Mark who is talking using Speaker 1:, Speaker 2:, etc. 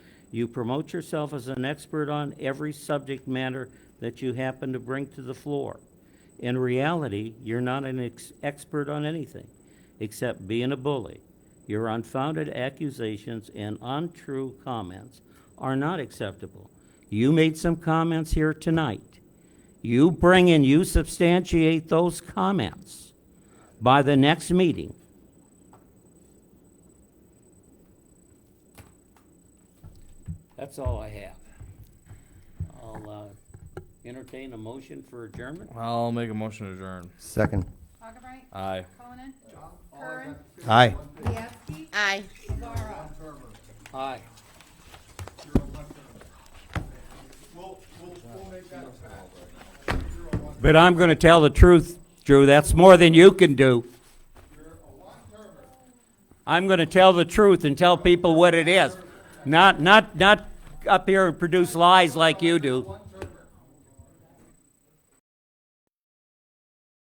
Speaker 1: You promote yourself as an expert on every subject matter that you happen to bring to the floor. In reality, you're not an ex- expert on anything except being a bully. Your unfounded accusations and untrue comments are not acceptable. You made some comments here tonight. You bring and you substantiate those comments by the next meeting. That's all I have. I'll uh, entertain a motion for adjournment.
Speaker 2: I'll make a motion to adjourn.
Speaker 3: Second.
Speaker 4: Augubright,
Speaker 2: Aye.
Speaker 4: Conan, Curran,
Speaker 3: Aye.
Speaker 4: Yasi,
Speaker 5: Aye.
Speaker 4: Guevara.
Speaker 1: Aye. But I'm gonna tell the truth, Drew, that's more than you can do. I'm gonna tell the truth and tell people what it is, not, not, not up here and produce lies like you do.